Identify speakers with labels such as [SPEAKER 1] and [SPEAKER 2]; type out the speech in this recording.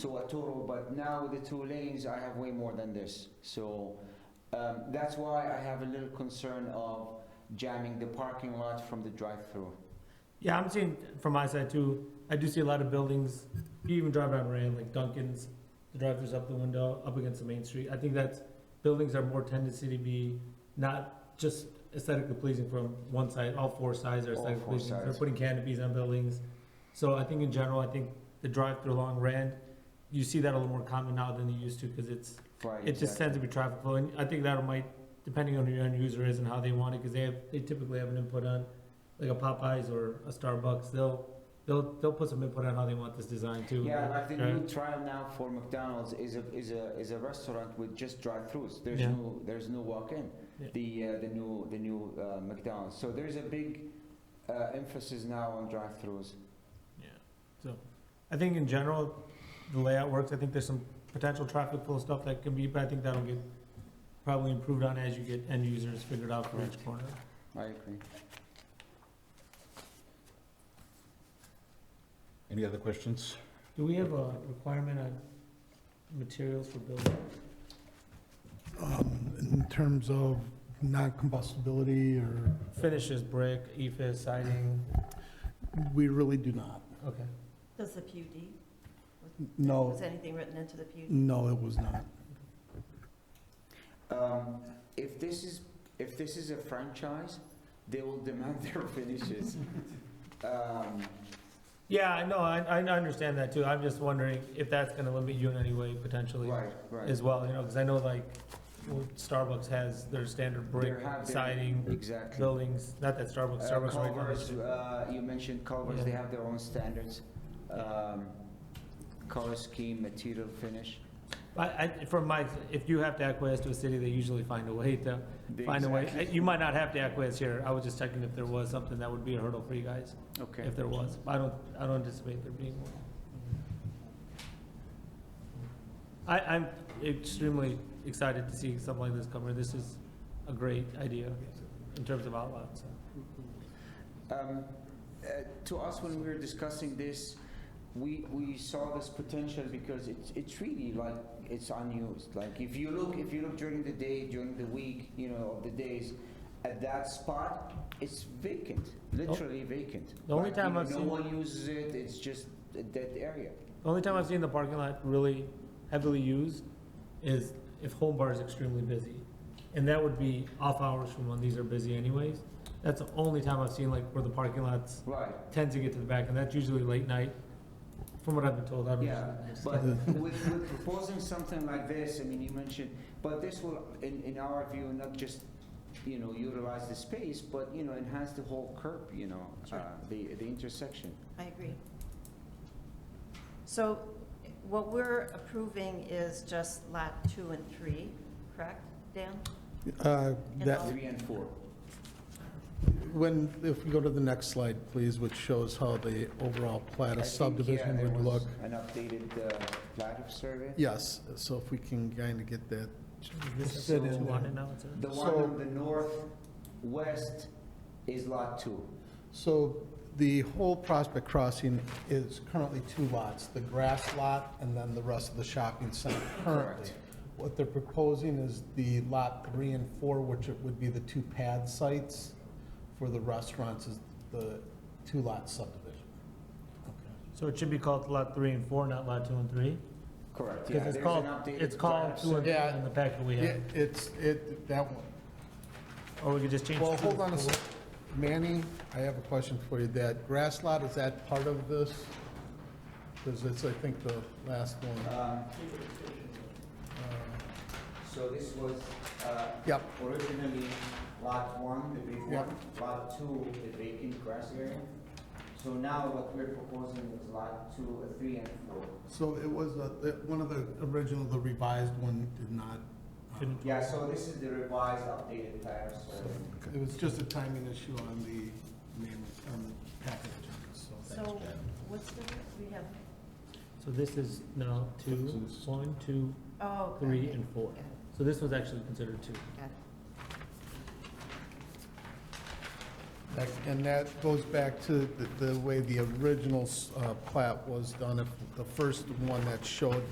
[SPEAKER 1] So a total, but now the two lanes, I have way more than this. So um, that's why I have a little concern of jamming the parking lot from the drive-through.
[SPEAKER 2] Yeah, I'm seeing from my side too. I do see a lot of buildings. You even drive down Ray, like Duncan's, the drive-throughs up the window, up against the main street. I think that's buildings are more tendency to be not just aesthetically pleasing from one side. All four sides are
[SPEAKER 1] All
[SPEAKER 2] aesthetically
[SPEAKER 1] four
[SPEAKER 2] pleasing. They're
[SPEAKER 1] sides.
[SPEAKER 2] putting canopies on buildings. So I think in general, I think the drive-through along Rand, you see that a little more common now than you used to because it's
[SPEAKER 1] Right,
[SPEAKER 2] it just tends to
[SPEAKER 1] exactly.
[SPEAKER 2] be traffic flow, and I think that might, depending on who your end user is and how they want it, because they have, they typically have an input on, like a Popeyes or a Starbucks, they'll, they'll, they'll put some input on how they want this design too.
[SPEAKER 1] Yeah, like the
[SPEAKER 2] right?
[SPEAKER 1] new trial now for McDonald's is a, is a, is a restaurant with just drive-throughs. There's
[SPEAKER 2] Yeah.
[SPEAKER 1] no, there's no walk-in.
[SPEAKER 2] Yeah.
[SPEAKER 1] The, uh, the new, the new uh, McDonald's. So there's a big uh, emphasis now on drive-throughs.
[SPEAKER 2] Yeah, so, I think in general, the layout works, I think there's some potential traffic flow stuff that can be, but I think that'll get probably improved on as you get end users figured out for each
[SPEAKER 1] Correct.
[SPEAKER 2] corner.
[SPEAKER 1] I agree.
[SPEAKER 3] Any other questions?
[SPEAKER 2] Do we have a requirement on materials for building?
[SPEAKER 4] um, in terms of non-combustibility, or,
[SPEAKER 2] Finishes, brick, E EFS, siding,
[SPEAKER 4] we really do not.
[SPEAKER 2] okay.
[SPEAKER 5] Does the PUD,
[SPEAKER 4] No,
[SPEAKER 5] was anything written into the PUD?
[SPEAKER 4] no, it was not.
[SPEAKER 1] Um, if this is, if this is a franchise, they will demand their finishes. Um,
[SPEAKER 2] Yeah, I know, I, I understand that too. I'm just wondering if that's gonna limit you in any way potentially
[SPEAKER 1] right, right.
[SPEAKER 2] as well, you know, because I know like well, Starbucks has their standard brick
[SPEAKER 1] There have been-
[SPEAKER 2] siding
[SPEAKER 1] Exactly.
[SPEAKER 2] buildings, not that Starbucks,
[SPEAKER 1] Uh,
[SPEAKER 2] Starbucks right now. is-
[SPEAKER 1] Culvers, uh, you mentioned Culvers,
[SPEAKER 2] Yeah.
[SPEAKER 1] they have their own standards. Um, color scheme, material finish.
[SPEAKER 2] But I, from my, if you have to acquiesce to a city, they usually find a way to,
[SPEAKER 1] They
[SPEAKER 2] find a way. Uh,
[SPEAKER 1] exactly-
[SPEAKER 2] You might not have to acquiesce here. I was just checking if there was something that would be a hurdle for you guys,
[SPEAKER 1] Okay.
[SPEAKER 2] if there was. I don't, I don't anticipate there being one. I, I'm extremely excited to see something like this come here. This is a great idea in terms of outlets.
[SPEAKER 1] Um, uh, To us, when we were discussing this, we, we saw this potential because it's, it's really like, it's unused. Like, if you look, if you look during the day, during the week, you know, of the days, at that spot, it's vacant, literally vacant.
[SPEAKER 2] Oh. The only
[SPEAKER 1] Like,
[SPEAKER 2] time
[SPEAKER 1] you know,
[SPEAKER 2] I've
[SPEAKER 1] No
[SPEAKER 2] seen-
[SPEAKER 1] one uses it, it's just a dead area.
[SPEAKER 2] The only time I've seen the parking lot really heavily used is if Home Bar is extremely busy. And that would be off hours from when these are busy anyways. That's the only time I've seen like where the parking lots
[SPEAKER 1] Right,
[SPEAKER 2] tend to get to the back, and that's usually late night, from what I've been told. I've
[SPEAKER 1] yeah.
[SPEAKER 2] been-
[SPEAKER 1] But with, with proposing something like this, I mean, you mentioned, but this will, in, in our view, not just, you know, utilize the space, but, you know, enhance the whole curb, you know,
[SPEAKER 5] Sure.
[SPEAKER 1] uh, the, the intersection.
[SPEAKER 5] I agree. So what we're approving is just lot two and three, correct, Dan?
[SPEAKER 4] Uh, That,
[SPEAKER 1] Three and four.
[SPEAKER 4] when, if we go to the next slide, please, which shows how the overall
[SPEAKER 1] I
[SPEAKER 4] plat of
[SPEAKER 1] think, yeah,
[SPEAKER 4] subdivision
[SPEAKER 1] there
[SPEAKER 4] would
[SPEAKER 1] was
[SPEAKER 4] look.
[SPEAKER 1] An updated uh, plat of survey?
[SPEAKER 4] Yes, so if we can kind of get that,
[SPEAKER 2] This is
[SPEAKER 4] Sit in
[SPEAKER 2] what you
[SPEAKER 4] there.
[SPEAKER 2] wanted now, it's a-
[SPEAKER 1] The one
[SPEAKER 4] So-
[SPEAKER 1] on the northwest is lot two.
[SPEAKER 4] So the whole Prospect Crossing is currently two lots, the grass lot and then the rest of the shopping center currently.
[SPEAKER 1] Correct.
[SPEAKER 4] What they're proposing is the lot three and four, which it would be the two pad sites for the restaurants, is the two-lot subdivision.
[SPEAKER 2] So it should be called lot three and four, not lot two and three?
[SPEAKER 1] Correct, yeah,
[SPEAKER 2] Because
[SPEAKER 1] there's an
[SPEAKER 2] it's called,
[SPEAKER 1] updated.
[SPEAKER 2] it's
[SPEAKER 1] plat
[SPEAKER 2] called
[SPEAKER 1] of
[SPEAKER 2] two and three
[SPEAKER 4] Yeah.
[SPEAKER 2] in the packet we have,
[SPEAKER 4] It- It's, it, that one.
[SPEAKER 2] or we could just change.
[SPEAKER 4] Well,
[SPEAKER 2] two
[SPEAKER 4] hold
[SPEAKER 2] to
[SPEAKER 4] on a
[SPEAKER 2] four.
[SPEAKER 4] sec. Manny, I have a question for you. That grass lot, is that part of this? Because it's, I think, the last
[SPEAKER 1] sur-
[SPEAKER 4] one.
[SPEAKER 1] um, So this was, uh,
[SPEAKER 4] Yep,
[SPEAKER 1] originally lot one, the big
[SPEAKER 4] Yeah.
[SPEAKER 1] one, lot two, the vacant grass area. So now what we're proposing is lot two, uh, three and four.
[SPEAKER 4] So it was, uh, the- one of the original, the revised one did not, uh,
[SPEAKER 2] Didn't-
[SPEAKER 1] Yeah, so this is the revised updated plan, so.
[SPEAKER 4] it was just a timing issue on the name, on the package, so.
[SPEAKER 5] So what's the, we have,
[SPEAKER 2] So this is now two, one, two,
[SPEAKER 5] oh. got
[SPEAKER 2] three,
[SPEAKER 5] it,
[SPEAKER 2] and four.
[SPEAKER 5] got it,
[SPEAKER 2] So this was actually considered two.
[SPEAKER 5] got it.
[SPEAKER 4] That- And that goes back to the- the way the original s- uh, plat was done, If the first one that showed